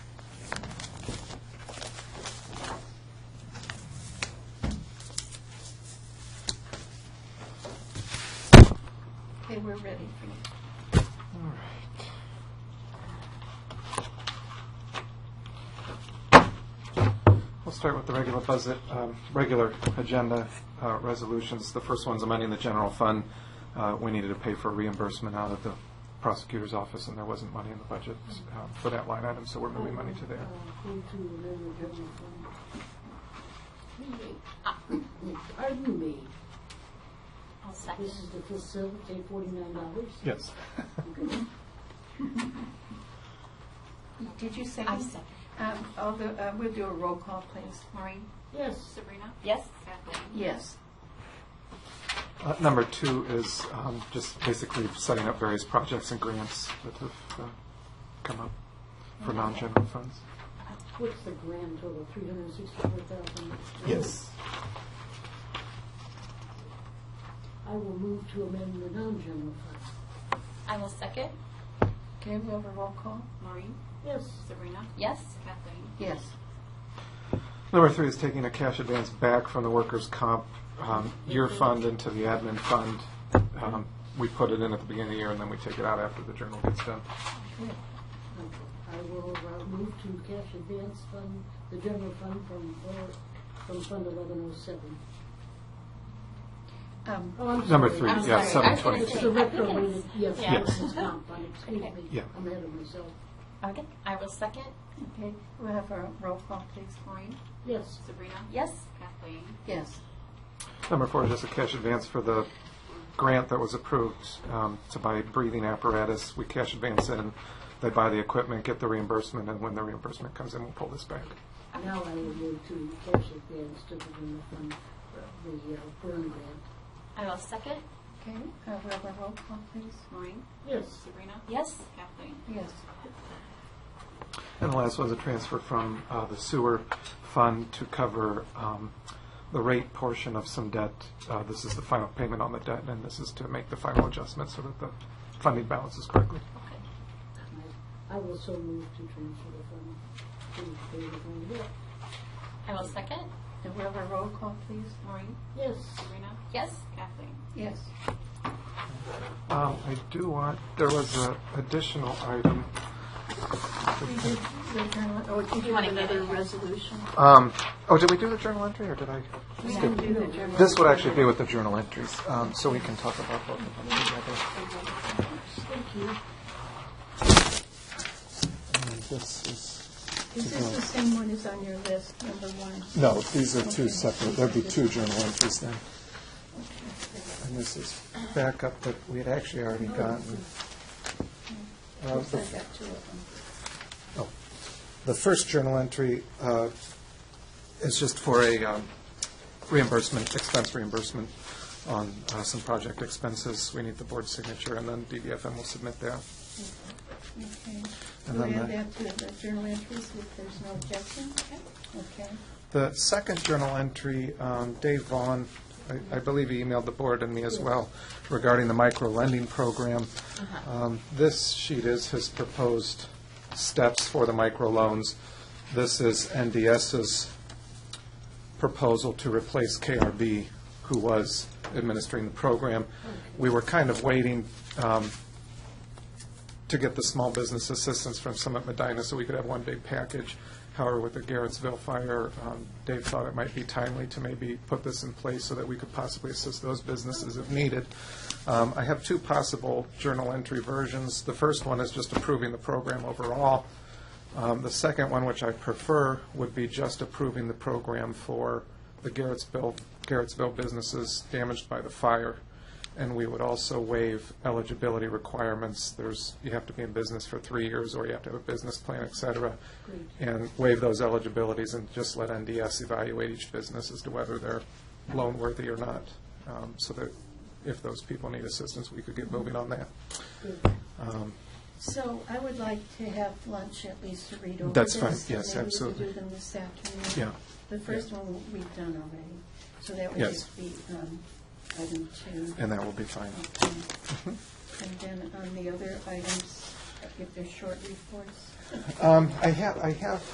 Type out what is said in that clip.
we're ready for you. All right. We'll start with the regular budget, um, regular agenda uh, resolutions. The first one's amending the general fund. Uh, We needed to pay for reimbursement out of the prosecutor's office, and there wasn't money in the budget um, for that line item, so we're moving money to there. Pardon me, I'll second. this is to facilitate forty-nine dollars? Yes. Did you say? I second. Um, although, uh, we'll do a roll call, please. Maureen? Yes, Sabrina? Yes? Kathleen? Yes. Uh, Number two is um, just basically setting up various projects and grants that have uh, come up for non-general funds. what's the grand total, three hundred and sixty-four thousand? I will move to amend the non-general fund. I will second. Okay, we'll have a roll call. Maureen? Yes, Sabrina? Yes? Kathleen? Yes. Number three is taking a cash advance back from the workers' comp um, year fund into the admin fund. Um, We put it in at the beginning of the year, and then we take it out after the journal gets done. Okay. I will uh, move to cash advance fund, the general fund from, four- from fund eleven oh seven. Um, Oh, I'm Number sorry. three, I'm yeah, sorry. seven I was twenty-two. It's the I think it retrograde, was- yes, yeah. workers' comp fund, excuse me, Yeah. I'm ahead of myself. Okay, I will second. okay, we'll have a roll call, please. Maureen? Yes, Sabrina? Yes? Kathleen? Yes. Number four is just a cash advance for the grant that was approved um, to buy breathing apparatus. We cash advance in, they buy the equipment, get the reimbursement, and when the reimbursement comes in, we'll pull this back. now I will move to cash advance to the general fund, uh, the uh, burn grant. I will second. Okay, uh, we'll have a roll call, please. Maureen? Yes, Sabrina? Yes? Kathleen? Yes. And the last was a transfer from uh, the sewer fund to cover um, the rate portion of some debt. Uh, This is the final payment on the debt, and this is to make the final adjustment so that the funding balances correctly. Okay. I will so move to transfer the fund to the general fund. Yeah. I will second. And we'll have a roll call, please. Maureen? Yes, Sabrina? Yes? Kathleen? Yes. Um, I do want, there was an additional item. We did, we done- oh, did you wanna have get another it? resolution? Um, Oh, did we do the journal entry, or did I? We didn't do the general. This would actually be with the journal entries, um, so we can talk about both of them together. thank you. And This is Is this the same one as on your list, number one? No, these are two separate, there'd be two journal entries then. And this is backup that we had actually already gotten. I Uh, the- got two of them. oh. The first journal entry uh, is just for a um, reimbursement, expense reimbursement on uh, some project expenses. We need the board signature, and then DVFM will submit that. Okay. And We'll then add the- that to the journal entries if there's no objection. Okay. The second journal entry, um, Dave Vaughn, I- I believe he emailed the board and me as well regarding the micro lending program. Um, This sheet is his proposed steps for the micro loans. This is NDS's proposal to replace KRB, who was administering the program. We were kind of waiting um, to get the small business assistance from Summit Medina so we could have one big package. However, with the Garrettsville fire, um, Dave thought it might be timely to maybe put this in place so that we could possibly assist those businesses if needed. Um, I have two possible journal entry versions. The first one is just approving the program overall. Um, The second one, which I prefer, would be just approving the program for the Garrettsville, Garrettsville businesses damaged by the fire. And we would also waive eligibility requirements. There's, you have to be in business for three years, or you have to have a business plan, et cetera, and waive those eligibilities and just let NDS evaluate each business as to whether they're loan-worthy or not, um, so that if those people need assistance, we could get moving on that. Um, So I would like to have lunch at least to read over That's this. fine. Yes, absolutely. Maybe we could do them this afternoon. Yeah. The first one we've done already, so that would Yes. just be um, item two. And that will be fine. Mm-hmm. Okay. And then on the other items, if they're short reports. Um, I have, I have